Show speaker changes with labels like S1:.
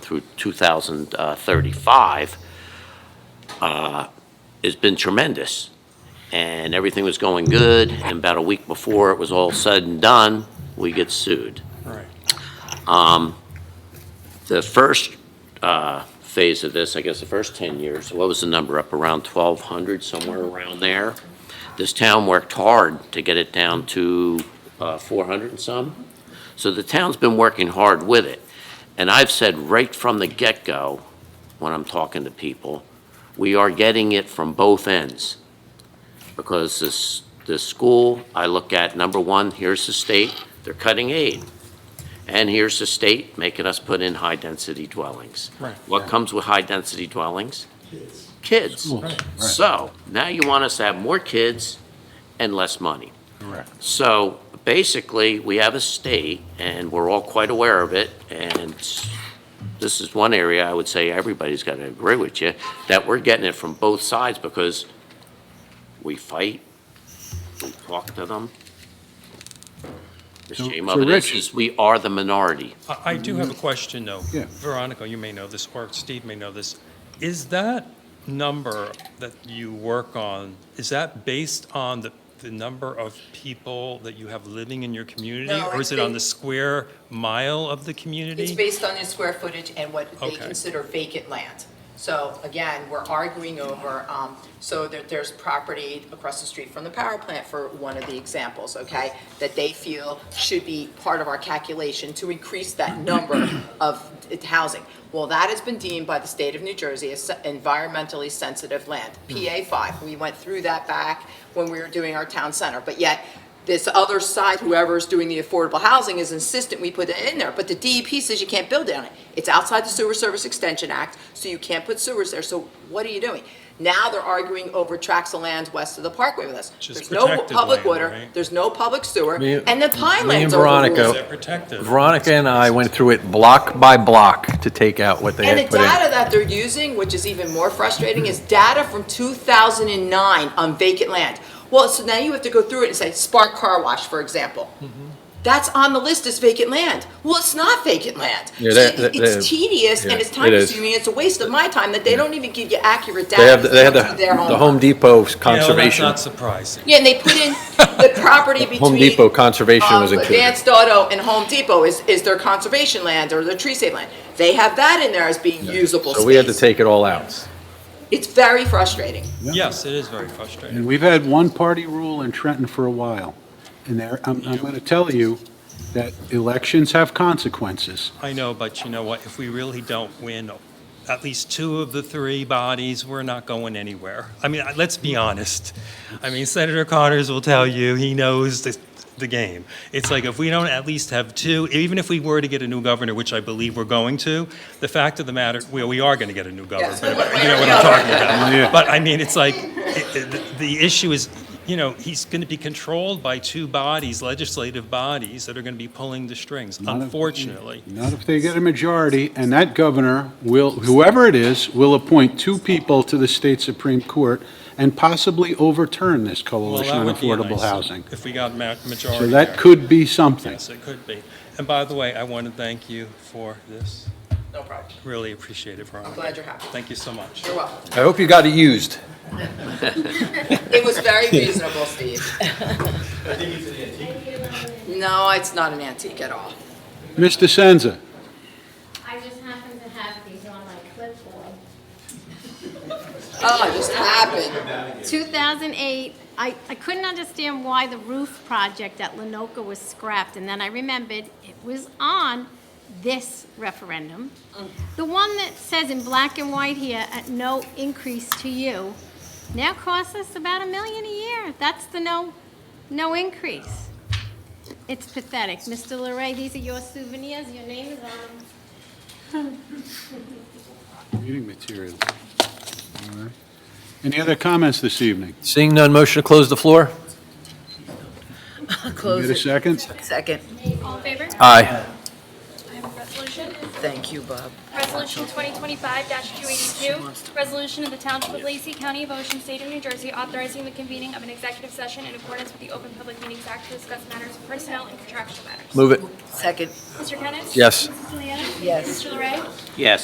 S1: through 2035 uh, has been tremendous. And everything was going good, and about a week before it was all said and done, we get sued. Um,
S2: Right.
S1: The first uh, phase of this, I guess the first 10 years, what was the number, up around 1,200, somewhere around there? This town worked hard to get it down to uh, 400 and some. So the town's been working hard with it. And I've said right from the get-go, when I'm talking to people, we are getting it from both ends. Because this, this school, I look at, number one, here's the state, they're cutting aid. And here's the state making us put in high-density dwellings.
S2: Right.
S1: What comes with high-density dwellings? Kids.
S2: Right.
S1: So now you want us to have more kids and less money.
S2: Correct.
S1: So basically, we have a state, and we're all quite aware of it, and this is one area I would say everybody's got to agree with you, that we're getting it from both sides because we fight, we talk to them. The
S3: So-
S1: shame
S3: so
S1: of it is,
S3: Rich-
S1: is we are the minority.
S2: I, I do have a question, though.
S3: Yeah.
S2: Veronica, you may know this, or Steve may know this. Is that number that you work on, is that based on the, the number of people that you have living in your community?
S4: No,
S2: Or is
S4: it's
S2: it on
S4: ba-
S2: the square mile of the
S4: It's
S2: community?
S4: based on the square footage and what they
S2: Okay.
S4: consider vacant land. So again, we're arguing over, um, so there, there's property across the street from the power plant for one of the examples, okay? That they feel should be part of our calculation to increase that number of housing. Well, that has been deemed by the state of New Jersey as environmentally sensitive land, PA five. We went through that back when we were doing our town center, but yet this other side, whoever's doing the affordable housing is insistent we put it in there, but the DEP says you can't build on it. It's outside the Sewer Service Extension Act, so you can't put sewers there, so what are you doing? Now they're arguing over tracts of land west of the parkway with us.
S2: Which is
S4: There's no
S2: protected
S4: public
S2: land,
S4: water,
S2: right?
S4: there's no public sewer,
S3: Me-
S4: and the
S3: me and
S4: Pinelands
S2: Is
S3: Veronica-
S4: overruled.
S2: that protected?
S3: Veronica and I went through it block by block to take out what they
S4: And the
S3: had put in.
S4: data that they're using, which is even more frustrating, is data from 2009 on vacant land. Well, so now you have to go through it and say Spark Car Wash, for example.
S3: Mm-hmm.
S4: That's on the list as vacant land. Well, it's not vacant land.
S5: Yeah,
S4: So
S5: that- that- that-
S4: It's tedious and
S5: yeah,
S4: it's
S5: it
S4: time
S5: is.
S4: consuming. It's a waste of my time that they don't even give you accurate data.
S3: They have, they have
S4: to do
S3: the,
S4: their
S3: the
S4: homework.
S3: Home Depot
S2: You know, that's
S3: conservation.
S2: not surprising.
S4: Yeah, and they put in the property between.
S3: Home Depot conservation
S4: um,
S3: was included.
S4: Advanced Auto and Home Depot is, is their conservation land or their tree save land. They have that in there as being usable
S3: So we had to
S4: space.
S3: take it all out.
S4: It's very frustrating.
S2: Yes, it is very frustrating.
S5: And we've had one-party rule in Trenton for a while. And there, I'm, I'm going to tell you that elections have consequences.
S2: I know, but you know what? If we really don't win at least two of the three bodies, we're not going anywhere. I mean, I- let's be honest. I mean, Senator Connors will tell you, he knows the, the game. It's like if we don't at least have two, even if we were to get a new governor, which I believe we're going to, the fact of the matter, well, we are going to get a new governor.
S4: Yes.
S2: but You know what I'm talking
S5: Yeah.
S2: about. But I mean, it's like, it- it- the issue is, you know, he's going to be controlled by two bodies, legislative bodies, that are going to be pulling the strings,
S5: Not if-
S2: unfortunately.
S5: Not if they get a majority, and that governor will, whoever it is, will appoint two people to the state Supreme Court and possibly overturn this
S2: Well,
S5: coalition
S2: that
S5: on
S2: would be
S5: affordable
S2: nice
S5: housing.
S2: If we got ma- majority.
S5: So that
S2: there.
S5: could be something.
S2: Yes, it could be. And by the way, I want to thank you for this.
S4: No problem.
S2: Really appreciate it, Veronica.
S4: I'm glad you're happy.
S2: Thank you so much.
S4: You're welcome.
S3: I hope you got it used.
S4: It was very reasonable, Steve. No, it's not an antique at all.
S5: Mr. Senza,
S6: I just happen to have these on my clipboard.
S4: Oh, it just happened.
S6: 2008, I, I couldn't understand why the roof project at Lenoka was scrapped, and then I remembered it was on this referendum. The one that says in black and white here, at no increase to you, now costs us about a million a year. That's the no, no increase. It's pathetic. Mr. Larray, these are your souvenirs, your name is on them.
S5: reading materials. All right. Any other comments this evening?
S3: Seeing none, motion to close the floor?
S5: Get a second?
S4: Second.
S7: All in favor? I
S3: Aye.
S7: have a resolution.
S4: Thank you, Bob.
S7: Resolution 2025-282, resolution of the Township of Lacey County of Ocean State of New Jersey authorizing the convening of an executive session in accordance with the Open Public Meetings Act to discuss matters of personnel and contractual matters.
S3: Move it. Second.
S6: Mr. Kennis?
S8: Yes.
S6: Mrs. Juliana?
S3: Yes.
S6: Mr. Larray?
S1: Yes.